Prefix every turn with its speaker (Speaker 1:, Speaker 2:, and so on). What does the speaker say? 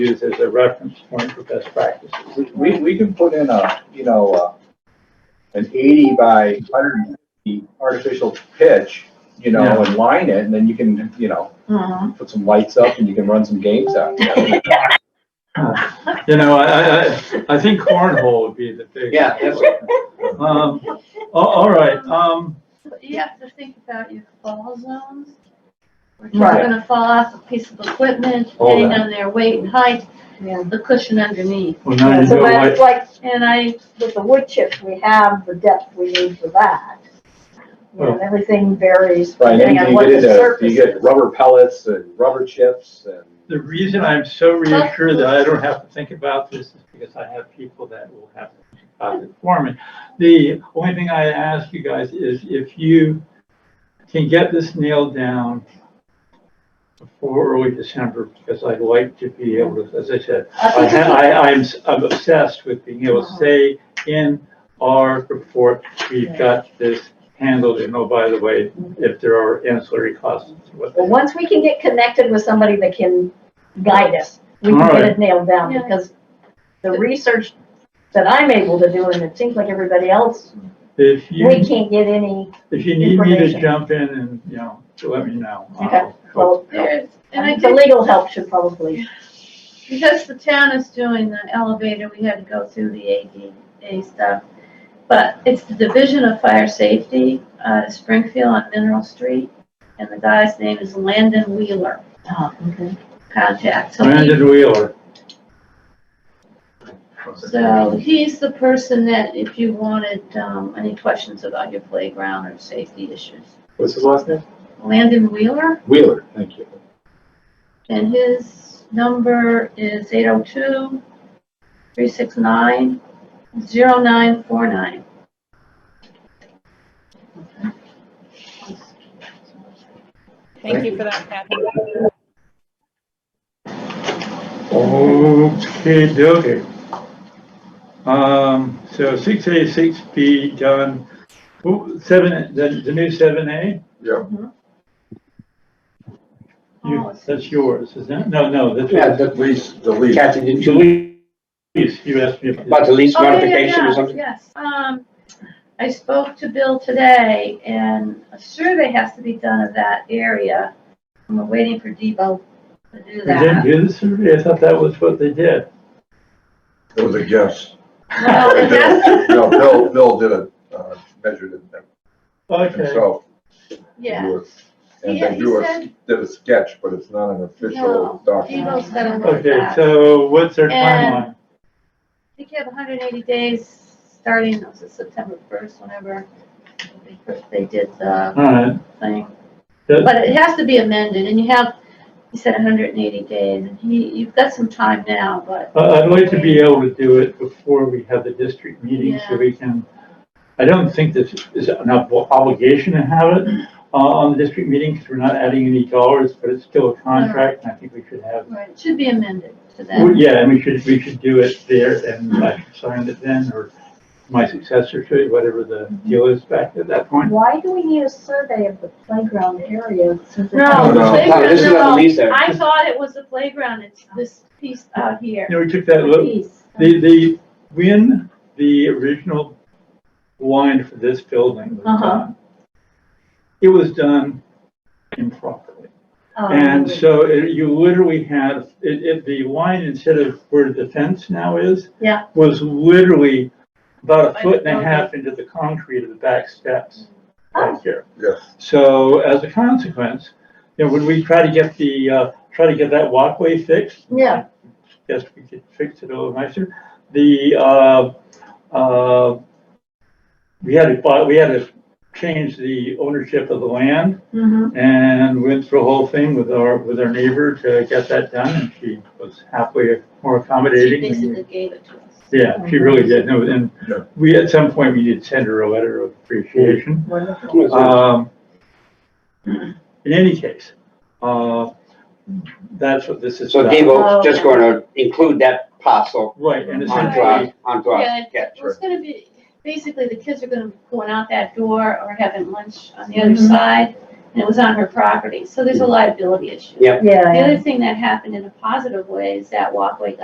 Speaker 1: use as a reference point for best practices.
Speaker 2: We- We, we can put in a, you know, uh, an eighty by hundred and fifty artificial pitch, you know,
Speaker 1: Yeah.
Speaker 2: and line it, and then you can, you know,
Speaker 3: Mhm.
Speaker 2: put some lights up and you can run some games out.
Speaker 1: You know, I, I, I think cornhole would be the big. Um, a- all right, um,
Speaker 4: You have to think about your fall zones. Where kids
Speaker 3: Right.
Speaker 4: are gonna fall off a piece of equipment,
Speaker 2: All
Speaker 4: depending
Speaker 2: that.
Speaker 4: on their weight and height,
Speaker 3: Yeah.
Speaker 4: the cushion underneath.
Speaker 1: well, now you
Speaker 3: So
Speaker 1: know
Speaker 3: that's
Speaker 1: what,
Speaker 3: like
Speaker 4: And I,
Speaker 3: with the wood chips, we have the depth we need for that. You know,
Speaker 1: Well-
Speaker 3: And everything varies
Speaker 2: Right,
Speaker 3: depending
Speaker 2: and
Speaker 3: on
Speaker 2: you
Speaker 3: what
Speaker 2: get
Speaker 3: the
Speaker 2: into,
Speaker 3: surface
Speaker 2: you
Speaker 3: is.
Speaker 2: get rubber pellets and rubber chips and,
Speaker 1: the reason I'm so reassured that I don't have to think about this is because I have people that will have to think about it for me. The only thing I ask you guys is if you can get this nailed down before early December, because I'd like to be able to, as I said, I,
Speaker 3: I think
Speaker 1: I, I'm, s- I'm obsessed with being able
Speaker 3: Oh.
Speaker 1: to say in our report, we've got this handled, and oh, by the way, if there are ancillary costs. what-
Speaker 3: Well, once we can get connected with somebody that can guide us, we can get
Speaker 1: Alright.
Speaker 3: it nailed down,
Speaker 4: Yeah.
Speaker 3: because the research that I'm able to do, and it seems like everybody else,
Speaker 1: If
Speaker 3: we
Speaker 1: you,
Speaker 3: can't get any,
Speaker 1: if you need me to
Speaker 3: Information.
Speaker 1: jump in and, you know, to let me know.
Speaker 3: Okay,
Speaker 1: I'll-
Speaker 3: well,
Speaker 4: there's, and I
Speaker 3: the
Speaker 4: think,
Speaker 3: legal help should probably,
Speaker 4: because the town is doing the elevator, we had to go through the ADA stuff. But it's the Division of Fire Safety, uh, Springfield on Mineral Street, and the guy's name is Landon Wheeler,
Speaker 3: oh, okay.
Speaker 4: contact. So he-
Speaker 1: Brandon Wheeler.
Speaker 4: So he's the person that if you wanted, um, any questions about your playground or safety issues.
Speaker 2: what's his last name?
Speaker 4: Landon Wheeler,
Speaker 2: Wheeler, thank you.
Speaker 4: and his number is eight oh two three six nine zero nine four nine.
Speaker 5: Thank you for that, Kathy.
Speaker 1: Okay, okay. Um, so six A, six B done, Who- seven, the, the new seven A?
Speaker 2: Yeah.
Speaker 4: Oh,
Speaker 3: Oh,
Speaker 1: You, that's yours, isn't it? No, no, that's.
Speaker 6: Yeah, the lease,
Speaker 2: The lead.
Speaker 6: Kathy, did you,
Speaker 1: Please, you asked me if.
Speaker 6: about the lease
Speaker 4: Oh, yeah, yeah,
Speaker 6: modification or
Speaker 4: yeah,
Speaker 6: something?
Speaker 4: Yes, um, I spoke to Bill today and a survey has to be done of that area. and We're waiting for Debo to
Speaker 1: They
Speaker 4: do
Speaker 1: didn't
Speaker 4: that.
Speaker 1: do the survey, I thought that was what they did.
Speaker 7: It was a guess.
Speaker 4: Well, it has to-
Speaker 7: No, Bill, Bill did it, uh, measured it
Speaker 1: Okay,
Speaker 7: himself.
Speaker 4: yeah.
Speaker 7: Drew it, And
Speaker 4: Yeah,
Speaker 7: then
Speaker 4: he
Speaker 7: drew a,
Speaker 4: said-
Speaker 7: did a sketch, but it's not an
Speaker 4: No,
Speaker 7: official document.
Speaker 4: Debo's gonna look at
Speaker 1: okay,
Speaker 4: that. I
Speaker 1: so what's their
Speaker 4: And-
Speaker 1: timeline?
Speaker 4: think you have hundred and eighty days, starting, was it September first, whenever they first- they did the
Speaker 1: Alright,
Speaker 4: thing.
Speaker 1: Good.
Speaker 4: But it has to be amended, and you have, you said hundred and eighty days, and he, you've got some time now, but,
Speaker 1: I- Uh, I'd like to be able to do it before we have the district meeting, so
Speaker 4: Yeah.
Speaker 1: we can, I don't think this is an ob- obligation to have it, uh, on the district meeting, because we're not adding any dollars, but it's still a
Speaker 4: Uh-huh.
Speaker 1: contract, and I think we should have,
Speaker 4: right, it should be amended to
Speaker 1: Well,
Speaker 4: that.
Speaker 1: yeah, and we should, we should do it there, and I should sign it then, or my successor should, whatever the deal is back at that point.
Speaker 3: Why do we need a survey of the playground area? since it's-
Speaker 4: No, the
Speaker 7: No,
Speaker 6: No,
Speaker 4: playground,
Speaker 6: Oh, this is not
Speaker 4: no,
Speaker 6: the lease area.
Speaker 4: I thought it was the playground, it's this piece out here.
Speaker 1: You know, we took that look,
Speaker 4: Piece.
Speaker 1: The, the, when the original line for this building was
Speaker 3: Uh-huh.
Speaker 1: done, it was done improperly.
Speaker 3: Um,
Speaker 1: And so it- you literally had, it, it, the line instead of where the fence now is.
Speaker 4: Yeah.
Speaker 1: Was literally about a
Speaker 5: By
Speaker 1: foot
Speaker 5: the
Speaker 1: and a half into the concrete of the back steps
Speaker 3: Oh.
Speaker 1: right here.
Speaker 7: Yes,
Speaker 1: So as a consequence, you know, when we try to get the, uh, try to get that walkway fixed,
Speaker 3: Yeah,
Speaker 1: guess we could fix it a little nicer. The, uh, uh, we had to buy, we had to change the ownership of the land
Speaker 4: Mm-hmm.
Speaker 3: mhm.
Speaker 1: and went through a whole thing with our, with our neighbor to get that done and she was halfway more
Speaker 4: She
Speaker 1: accommodating.
Speaker 4: basically gave it to us.
Speaker 1: Yeah, she really did. No, And
Speaker 7: Yeah.
Speaker 1: we, at some point, we did send her a letter of appreciation.
Speaker 3: wonderful.
Speaker 6: Uh,
Speaker 1: Um, in any case, uh, that's what this is
Speaker 6: So
Speaker 1: about.
Speaker 4: Oh,
Speaker 6: Devo's just gonna include that parcel
Speaker 1: Right, and
Speaker 6: onto
Speaker 1: essentially,
Speaker 6: our, onto our sketch.
Speaker 4: It's gonna be, basically, the kids are gonna be going out that door or having lunch on the other side, and it was on her property, so there's a liability issue.
Speaker 6: Yeah.
Speaker 3: Yeah,
Speaker 4: The
Speaker 3: yeah.
Speaker 4: other thing that happened in a positive way is that walkway got